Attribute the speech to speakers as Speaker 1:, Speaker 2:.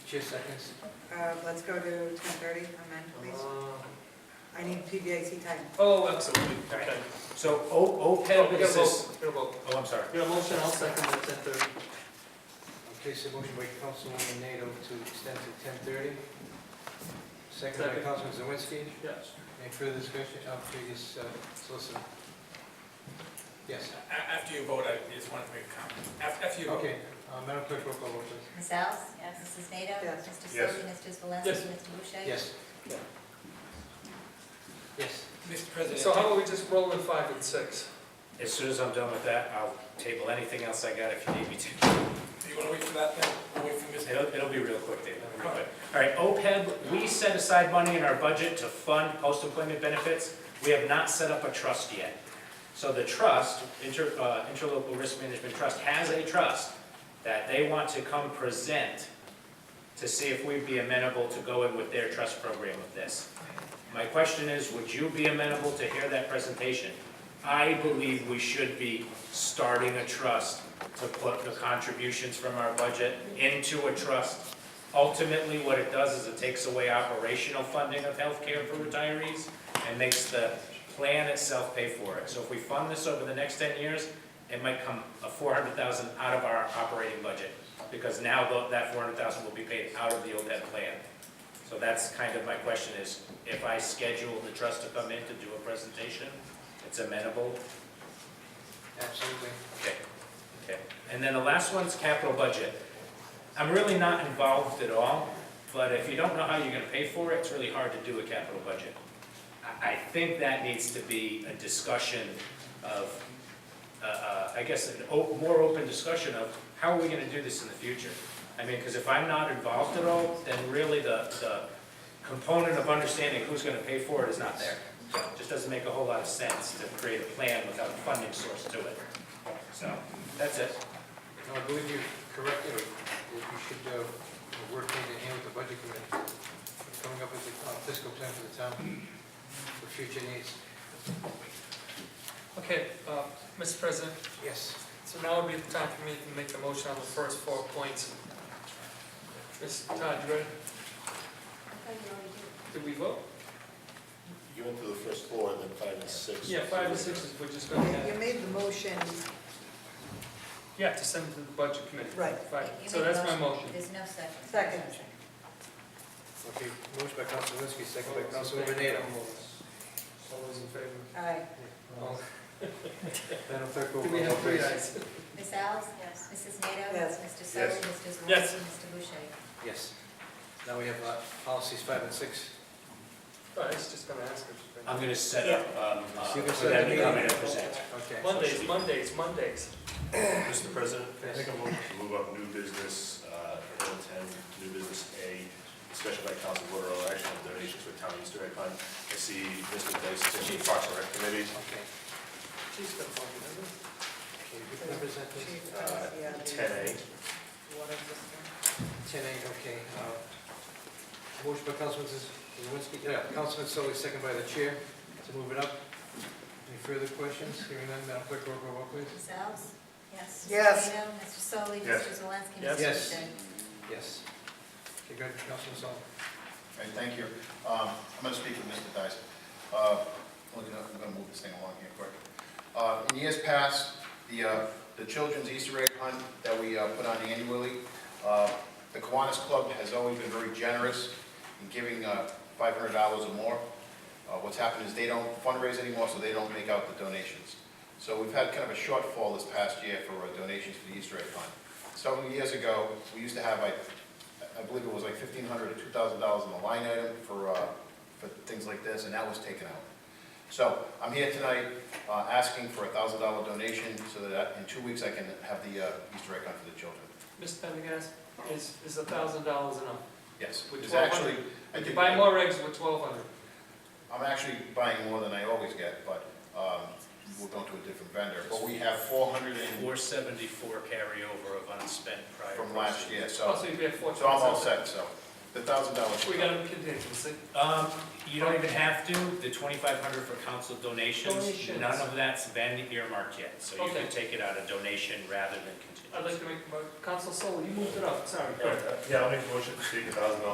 Speaker 1: Chair seconds.
Speaker 2: Uh, let's go to ten thirty, amend, please. I need PBIC time.
Speaker 3: Oh, absolutely, okay.
Speaker 4: So O,
Speaker 3: Okay,
Speaker 4: OPEB
Speaker 3: we gotta
Speaker 4: is this,
Speaker 3: vote, we gotta vote.
Speaker 4: oh, I'm sorry.
Speaker 3: We got a motion, I'll second at ten thirty.
Speaker 1: Okay, so motion by Councilwoman NATO to extend to ten thirty. Second by
Speaker 3: Second.
Speaker 1: Councilman Zawinski.
Speaker 3: Yes.
Speaker 1: Any further discussion? Uh, previous uh, solicitor. Yes,
Speaker 5: After you vote, I just wanted to make a comment. After after you
Speaker 3: Oh.
Speaker 5: vote.
Speaker 1: okay. Uh, Madam Clerk, roll call vote, please.
Speaker 6: Ms. Els? Yes. Mrs. Nato?
Speaker 2: Yes.
Speaker 6: Mr.
Speaker 4: Yes.
Speaker 6: Soli, Mr. Zalinski?
Speaker 3: Yes.
Speaker 6: Mr. Boucher?
Speaker 1: Yes.
Speaker 3: Yeah.
Speaker 1: Yes.
Speaker 5: Mr. President.
Speaker 3: So how about we just roll in five and six?
Speaker 4: As soon as I'm done with that, I'll table anything else I got if you need me to.
Speaker 5: Do you want to wait for that then? Or Wait for Mr.
Speaker 4: It'll, it'll be real quick, Dave. It'll be real quick. All right, OPEB, we set aside money in our budget to fund post-employment benefits. We have not set up a trust yet. So the trust, inter, uh, Interlocal Risk Management Trust, has a trust that they want to come present to see if we'd be amenable to go in with their trust program of this. My question is, would you be amenable to hear that presentation? I believe we should be starting a trust to put the contributions from our budget into a trust. Ultimately, what it does is it takes away operational funding of healthcare for retirees and makes the plan itself pay for it. So if we fund this over the next ten years, it might come a four hundred thousand out of our operating budget, because now tho- that four hundred thousand will be paid out of the OPEB plan. So that's kind of my question is, if I schedule the trust to come in to do a presentation, it's amenable,
Speaker 1: Absolutely.
Speaker 4: Okay, okay. And then the last one's capital budget. I'm really not involved at all, but if you don't know how you're gonna pay for it, it's really hard to do a capital budget. I, I think that needs to be a discussion of, uh, uh, I guess, an o- more open discussion of how are we gonna do this in the future? I mean, because if I'm not involved at all, then really the, the component of understanding who's gonna pay for it is not there. So it Just doesn't make a whole lot of sense to create a plan without a funding source to it. So, that's it.
Speaker 1: No, I believe you're correct, Eric. That You should uh, work hand in hand with the budget committee, coming up with a fiscal plan for the town, for future needs.
Speaker 3: Okay, uh, Mr. President,
Speaker 1: Yes.
Speaker 3: so now would be the time for me to make the motion on the first four points. Mr. Todd, you ready?
Speaker 6: I thought you already did.
Speaker 3: Did we vote?
Speaker 7: You went through the first four, and then five and six.
Speaker 3: Yeah, five and six is, we're just gonna
Speaker 2: You
Speaker 3: add,
Speaker 2: made the motion,
Speaker 3: yeah, to send it to the budget committee.
Speaker 2: right.
Speaker 3: Right,
Speaker 6: You
Speaker 3: so
Speaker 6: made a
Speaker 3: that's my motion.
Speaker 6: There's no second.
Speaker 2: Second.
Speaker 1: Okay, motion by Council Zawinski, second by
Speaker 3: All those in
Speaker 1: Councilwoman
Speaker 3: favor?
Speaker 1: NATO.
Speaker 3: All those in favor?
Speaker 2: Aye.
Speaker 1: All- Madam Clerk, roll
Speaker 3: Do we
Speaker 1: call
Speaker 3: have
Speaker 1: vote,
Speaker 3: three
Speaker 1: please.
Speaker 3: ayes?
Speaker 6: Ms. Els? Yes. Mrs. Nato?
Speaker 2: Yes.
Speaker 6: Mr. Soli,
Speaker 7: Yes.
Speaker 6: Mr. Zalinski?
Speaker 3: Yes.
Speaker 6: Mr. Boucher?
Speaker 1: Yes. Now we have uh, policies five and six.
Speaker 3: Oh, I was just gonna ask if.
Speaker 4: I'm gonna set up, um, uh,
Speaker 1: You can
Speaker 4: for
Speaker 1: set
Speaker 4: them
Speaker 1: the
Speaker 4: to come in and
Speaker 1: meeting.
Speaker 4: present.
Speaker 1: Okay.
Speaker 3: Mondays, Mondays, Mondays.
Speaker 7: Mr. President, can I
Speaker 1: Yes.
Speaker 7: make a motion to move up new business, uh, item ten, new business A, discussion by council voter on action on donations for town Easter egg hunt. I see Mr. Dice, Chief Parks and Rec Committee,
Speaker 1: Okay.
Speaker 3: She's gonna fucking, isn't
Speaker 1: Okay, who represents this?
Speaker 2: Chief,
Speaker 7: uh,
Speaker 2: yeah, the-
Speaker 7: ten A.
Speaker 2: What is this one?
Speaker 1: Ten A, okay. uh, Motion by Councilman Zawinski, yeah, Councilman Sully, second by the chair, to move it up. Any further questions? Hearing none, Madam Clerk, roll call vote, please.
Speaker 6: Ms. Els? Yes.
Speaker 2: Yes.
Speaker 6: Mrs. Nato? Mr. Soli?
Speaker 7: Yes.
Speaker 6: Mr. Zalinski?
Speaker 3: Yes.
Speaker 6: Mr.
Speaker 1: Yes.
Speaker 6: Boucher?
Speaker 1: Yes. Okay, good, Councilman Sully.
Speaker 8: All right, thank you. Um, I'm going to speak with Mr. Dyson. Uh, Look, I'm going to move this thing along here quick. Uh, In years past, the, uh, the children's Easter egg hunt that we uh, put on annually, uh, the Kiwanis Club has always been very generous in giving uh, $500 or more. Uh, What's happened is they don't fundraise anymore, so they don't make out the donations. So we've had kind of a shortfall this past year for uh, donations for the Easter egg hunt. Several years ago, we used to have, I I believe it was like fifteen hundred to two thousand dollars in the line item for, uh, for things like this, and that was taken out. So I'm here tonight, uh, asking for a thousand dollar donation so that in two weeks I can have the, uh, Easter egg hunt for the children.
Speaker 3: it? Mr. Pendergast, is, is a thousand dollars enough?
Speaker 8: Yes,
Speaker 3: With
Speaker 8: it's actually, I
Speaker 3: You
Speaker 8: did,
Speaker 3: buy
Speaker 8: I'm
Speaker 3: more eggs with twelve hundred.
Speaker 8: actually buying more than I always get, but, um, we're going to a different vendor, but we have four hundred and,
Speaker 4: Four seventy-four carryover of unspent prior.
Speaker 8: from last
Speaker 4: proceeds.
Speaker 8: year,
Speaker 3: Oh,
Speaker 8: so,
Speaker 3: so you'd be at four
Speaker 8: so I'm all
Speaker 3: twenty-seven.
Speaker 8: set, so. the thousand dollars.
Speaker 3: We got a contingency.
Speaker 4: Um, you don't even have to, the twenty-five hundred for council donations,
Speaker 3: Donations.
Speaker 4: none of that's been earmarked yet, so you
Speaker 3: Okay.
Speaker 4: can take it out of donation rather than
Speaker 3: I'd like
Speaker 4: contingency.
Speaker 3: to make, Council Soul, you moved it up, sorry.
Speaker 7: Yeah, I'll make a motion to take a thousand dollars